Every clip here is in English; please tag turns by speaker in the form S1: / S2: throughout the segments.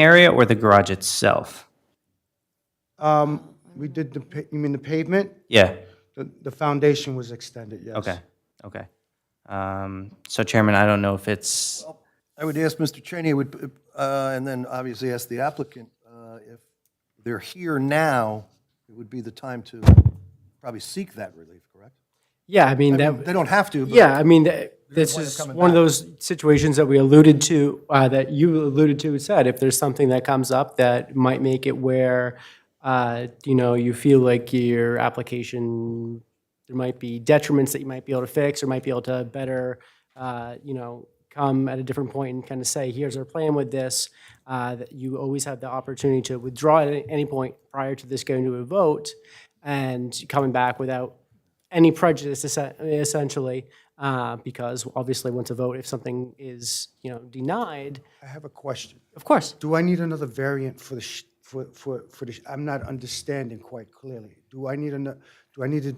S1: area or the garage itself?
S2: Um, we did the, pa- you mean the pavement?
S1: Yeah,
S2: The, the foundation was extended, yes.
S1: okay, okay. Um, So Chairman, I don't know if it's,
S3: I would ask Mr. Cheney, I would, uh, and then obviously ask the applicant, uh, if they're here now, it would be the time to probably seek that relief, correct?
S4: Yeah, I mean, that,
S3: They don't have to, but.
S4: yeah, I mean, th- this is one of those situations that we alluded to, uh, that you alluded to and said, if there's something that comes up that might make it where, uh, you know, you feel like your application, there might be detriments that you might be able to fix or might be able to better, uh, you know, come at a different point and kind of say, here's our plan with this, uh, that you always have the opportunity to withdraw at any- any point prior to this going to a vote and coming back without any prejudice essen- essentially, uh, because obviously once a vote, if something is, you know, denied,
S2: I have a question.
S4: of course.
S2: Do I need another variant for the, sh- for, for, for the, sh- I'm not understanding quite clearly. Do I need another, do I need to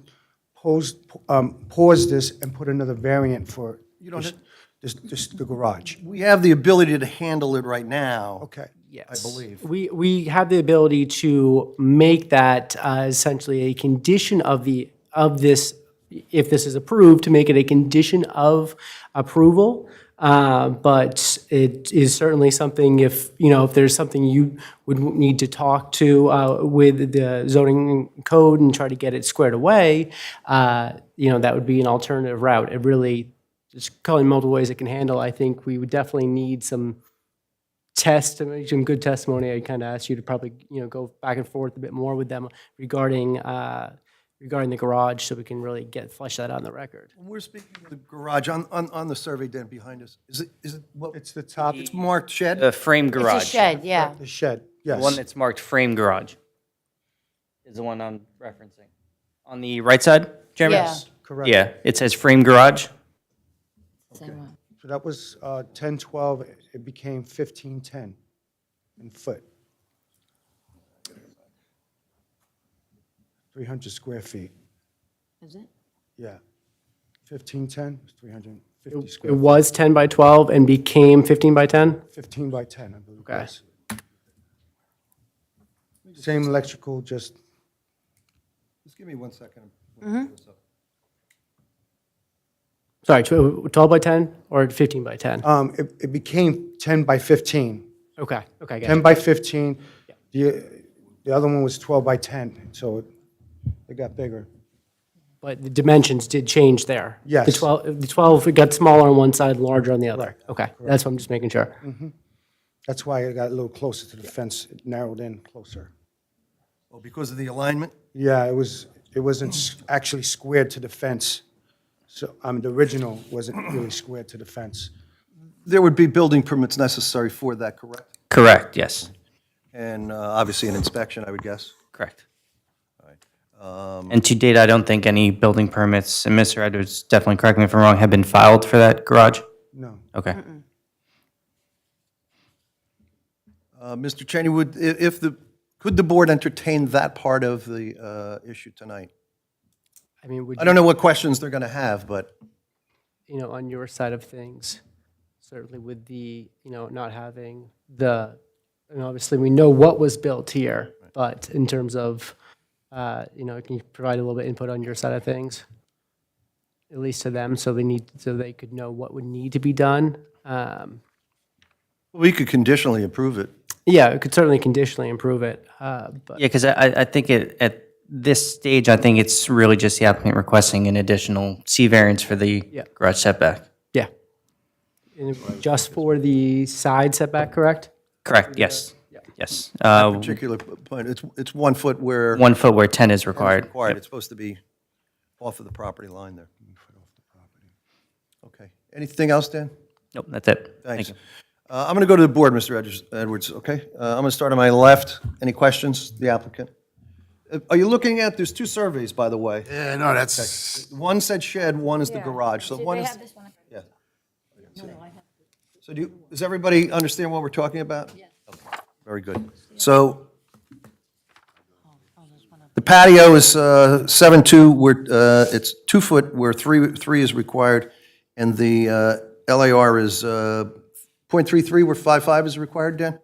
S2: pose, um, pause this and put another variant for this, this, this- the garage?
S3: We have the ability to handle it right now.
S2: Okay.
S4: Yes. I believe. We, we have the ability to make that uh, essentially a condition of the, of this, if this is approved, to make it a condition of approval. Uh, But it is certainly something if, you know, if there's something you would need to talk to uh, with the zoning code and try to get it squared away, uh, you know, that would be an alternative route. It really, just calling multiple ways it can handle, I think we would definitely need some testimony, some good testimony. I kind of asked you to probably, you know, go back and forth a bit more with them regarding, uh, regarding the garage so we can really get, flesh that out on the record.
S3: When We're speaking of the garage on, on, on the survey den behind us. Is it, is it, well,
S2: It's the top,
S3: it's marked shed?
S1: the frame
S5: It's a
S1: garage.
S5: shed, yeah.
S2: the shed,
S1: The one
S2: yes.
S1: that's marked frame garage is the one I'm referencing. On the right side, Chairman?
S5: Yeah. Yes,
S2: correct.
S1: Yeah, it says frame garage.
S5: Same one.
S2: So that was, uh, ten twelve, it became fifteen ten in foot. Three hundred square feet.
S5: Is it?
S2: Yeah. Fifteen, ten, three hundred and fifty
S4: It
S2: square,
S4: was 10 by 12 and became 15 by 10?
S2: fifteen by ten, I believe. it was. Same electrical, just,
S3: Just give me one second. I'm gonna pull
S4: Mm-hmm.
S3: this up.
S4: Sorry, tw- 12 by 10 or 15 by 10?
S2: um, it, it became ten by fifteen.
S4: Okay, okay, I got it.
S2: Ten by fifteen, the, the other one was twelve by ten, so it, it got bigger.
S4: But the dimensions did change there? The
S2: Yes.
S4: 12, the 12, it got smaller on one side, larger on the other? Okay, that's what I'm just making sure.
S2: Mm-hmm. That's why it got a little closer to the fence, it narrowed in closer.
S3: Oh, because of the alignment?
S2: Yeah, it was, it wasn't s- actually squared to the fence. So, um, the original wasn't really squared to the fence.
S3: There would be building permits necessary for that, correct?
S1: Correct, yes,
S3: And uh, obviously an inspection, I would guess.
S1: correct. And to date, I don't think any building permits, and Mr. Edwards, definitely correct me if I'm wrong, have been filed for that garage?
S2: No.
S1: Okay.
S3: Uh, Mr. Cheney, would, i- if the, could the board entertain that part of the uh, issue tonight?
S4: I mean, would
S3: I don't know what questions they're going to have, but
S4: you know, on your side of things, certainly with the, you know, not having the, and obviously we know what was built here, but in terms of, uh, you know, can you provide a little bit input on your side of things? At least to them, so they need, so they could know what would need to be done. Um,
S3: we could conditionally approve it.
S4: yeah, it could certainly conditionally improve it, uh, but
S1: Yeah, because I, I I think it, at this stage, I think it's really just the applicant requesting an additional C variance for the garage setback.
S4: yeah. And it- just for the side setback, correct?
S1: Correct, yes, yes. Uh,
S3: Particular p- point, it's, it's one foot where
S1: One foot where 10 is required.
S3: required, it's supposed to be off of the property line there. Okay, anything else, Dan?
S1: Nope, that's it. Thank
S3: Thanks.
S1: you.
S3: Uh, I'm going to go to the board, Mr. Edwards- Edwards, okay? Uh, I'm going to start on my left. Any questions, the applicant? Uh, Are you looking at, there's two surveys, by the way.
S6: Yeah, no, that's,
S3: One said shed, one is the garage, so one
S5: They
S3: is.
S5: have this one.
S3: Yeah. So do, you- does everybody understand what we're talking about? Yes. Very good. So the patio is uh, seven two, we're, uh, it's two foot where three, three is required, and the uh, LAR is uh, .33 where five five is required, Dan?